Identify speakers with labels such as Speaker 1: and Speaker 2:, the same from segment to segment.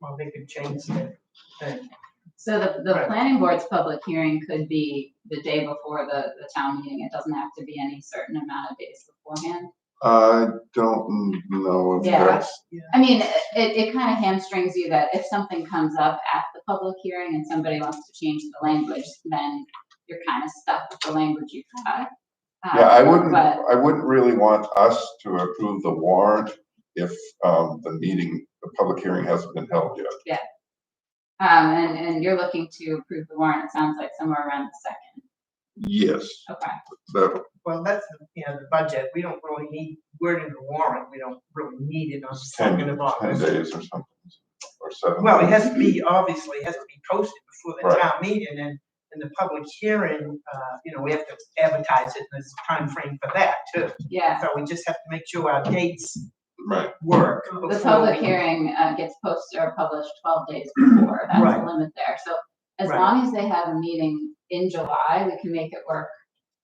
Speaker 1: Well, they could change the thing.
Speaker 2: So the, the
Speaker 1: Right.
Speaker 2: planning board's public hearing could be the day before the, the town meeting. It doesn't have to be any certain amount of days beforehand.
Speaker 3: I don't know if
Speaker 2: Yeah.
Speaker 3: that's,
Speaker 2: I mean, it, it kind of hamstrings you that if something comes up at the public hearing and somebody wants to change the language, then you're kind of stuck with the language you've got. Um,
Speaker 3: yeah, I wouldn't,
Speaker 2: But,
Speaker 3: I wouldn't really want us to approve the warrant if, um, the meeting, the public hearing hasn't been held yet.
Speaker 2: um, and, and you're looking to approve the warrant, it sounds like somewhere around the second.
Speaker 3: Yes,
Speaker 2: Okay.
Speaker 3: that,
Speaker 1: Well, that's, you know, the budget, we don't really need, we're in the warrant, we don't really need it on the
Speaker 3: ten,
Speaker 1: second of
Speaker 3: ten
Speaker 1: August.
Speaker 3: days or something, or seven.
Speaker 1: Well, it
Speaker 3: days.
Speaker 1: has to be, obviously, it has to be posted before the
Speaker 3: Right.
Speaker 1: town meeting and, and the public hearing, uh, you know, we have to advertise it, and there's a time frame for that too.
Speaker 2: Yeah,
Speaker 1: So we just have to make sure our dates
Speaker 3: Right,
Speaker 1: work.
Speaker 2: the
Speaker 1: before
Speaker 2: public
Speaker 1: we-
Speaker 2: hearing uh, gets posted or published twelve days before, that's
Speaker 1: Right.
Speaker 2: the limit there. So as
Speaker 1: Right.
Speaker 2: long as they have a meeting in July, we can make it work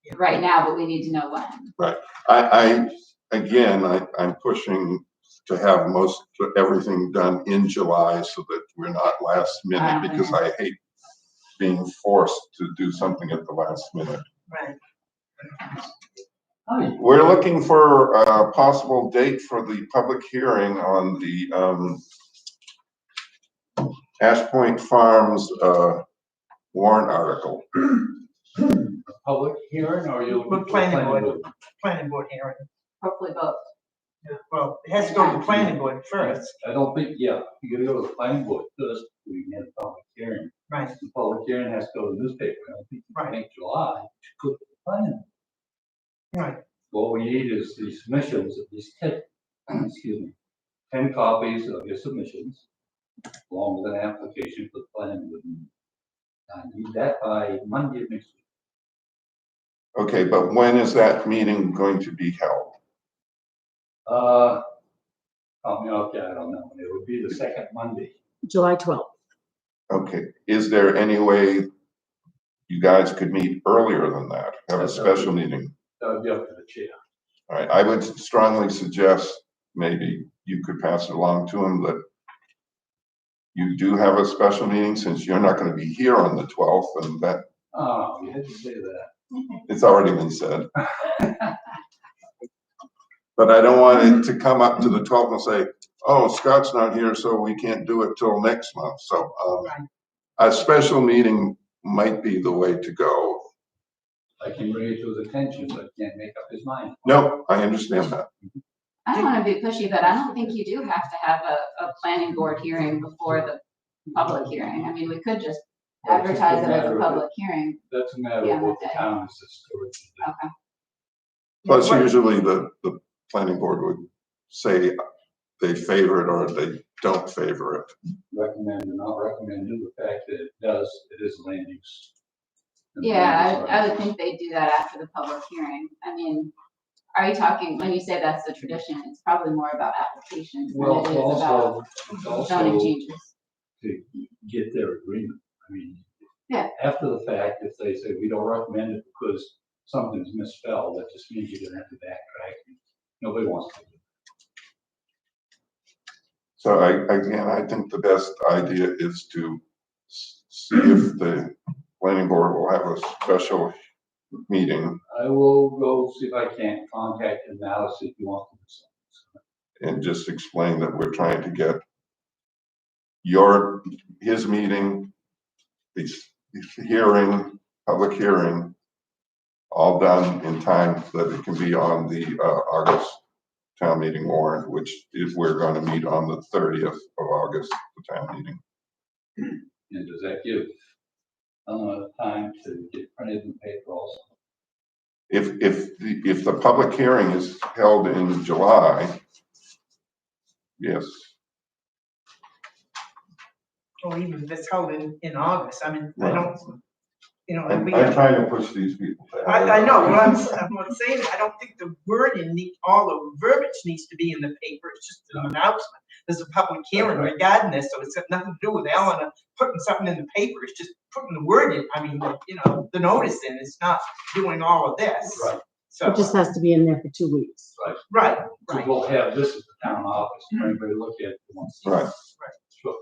Speaker 1: Yeah.
Speaker 2: right now, but we need to know when.
Speaker 3: I, I, again, I, I'm pushing to have most, everything done in July so that we're not last
Speaker 2: Ah,
Speaker 3: minute, because I hate being forced to do something at the last minute.
Speaker 1: Right.
Speaker 3: We're looking for a possible date for the public hearing on the, um, Ash Point Farms, uh, warrant article.
Speaker 4: public hearing or you're looking
Speaker 1: We're
Speaker 4: for
Speaker 1: planning
Speaker 4: planning
Speaker 1: board.
Speaker 4: board?
Speaker 1: Planning board hearing.
Speaker 2: Hopefully both.
Speaker 1: Well, it has to go to the planning board first,
Speaker 4: I don't think, yeah, you gotta go to the planning board first, we can have a public hearing.
Speaker 1: right?
Speaker 4: The public hearing has to go to the newspaper, I don't think you
Speaker 1: Right.
Speaker 4: can make July, to go to the planning.
Speaker 1: Right.
Speaker 4: What we need is the submissions, at least ten, excuse me, ten copies of your submissions, along with an application for the planning board. meeting. I need that by Monday of next week.
Speaker 3: Okay, but when is that meeting going to be held?
Speaker 4: Uh, I mean, okay, I don't know, it would be the second Monday.
Speaker 5: July 12th.
Speaker 3: Okay, is there any way you guys could meet earlier than that? Have a special meeting?
Speaker 4: That would be up to the chair.
Speaker 3: All right, I would strongly suggest maybe you could pass it along to him that you do have a special meeting since you're not gonna be here on the twelfth and that,
Speaker 4: Oh, you had to say that.
Speaker 3: it's already been said. But I don't want it to come up to the twelfth and say, oh, Scott's not here, so we can't do it till next month. So, um, a special meeting might be the way to go.
Speaker 4: I can bring it to his attention, but can't make up his mind.
Speaker 3: No, I understand that.
Speaker 2: I don't want to be pushy, but I don't think you do have to have a, a planning board hearing before the public hearing. I mean, we could just
Speaker 4: That's just a
Speaker 2: advertise it as
Speaker 4: matter
Speaker 2: a
Speaker 4: of-
Speaker 2: public hearing.
Speaker 4: That's a matter
Speaker 2: Yeah,
Speaker 4: of what the
Speaker 2: okay.
Speaker 4: town is historically. doing.
Speaker 2: Okay,
Speaker 3: Plus,
Speaker 1: Right.
Speaker 3: usually the, the planning board would say they favor it or they don't favor it.
Speaker 4: Recommend or not recommend, due to the fact that it does, it is land use. And
Speaker 2: yeah,
Speaker 4: land use
Speaker 2: I, I would
Speaker 4: rights.
Speaker 2: think they do that after the public hearing. I mean, are you talking, when you say that's the tradition, it's probably more about applications than it
Speaker 4: Well, it's
Speaker 2: is about
Speaker 4: also, it's
Speaker 2: zoning
Speaker 4: also
Speaker 2: changes.
Speaker 4: to get their agreement. I mean,
Speaker 2: Yeah.
Speaker 4: after the fact, if they say we don't recommend it because something's misspelled, that just means you're gonna have to backtrack. Nobody wants to. do that.
Speaker 3: So I, again, I think the best idea is to s- see if the planning board will have a special meeting
Speaker 4: I will go see if I can contact him now, to see if he wants to do something.
Speaker 3: and just explain that we're trying to get your, his meeting, his his hearing, public hearing, all done in time so that it can be on the uh, August town meeting warrant, which is, we're going to meet on the thirtieth of August, the town meeting.
Speaker 4: And does that give enough time to get printed in paper also?
Speaker 3: If, if, the- if the public hearing is held in July, yes,
Speaker 1: Or even if it's held in, in August, I mean, I
Speaker 3: Right.
Speaker 1: don't, you know,
Speaker 3: I'm
Speaker 1: we
Speaker 3: I'm
Speaker 1: have.
Speaker 3: trying to push these people. to
Speaker 1: I,
Speaker 3: have-
Speaker 1: I know, what I'm, I'm saying, I don't think the wording need, all the verbiage needs to be in the paper, it's just an announcement. There's a public hearing regarding this, so it's got nothing to do with Eleanor putting something in the paper, it's just putting the word in, I mean, the- you know, the notice in, it's not doing all of this.
Speaker 4: Right.
Speaker 1: So,
Speaker 5: It just has to be in there for two weeks.
Speaker 1: right,
Speaker 4: So
Speaker 1: right,
Speaker 4: we'll have this at the town office, for anybody to look at. it once.
Speaker 3: Right.
Speaker 4: Sure.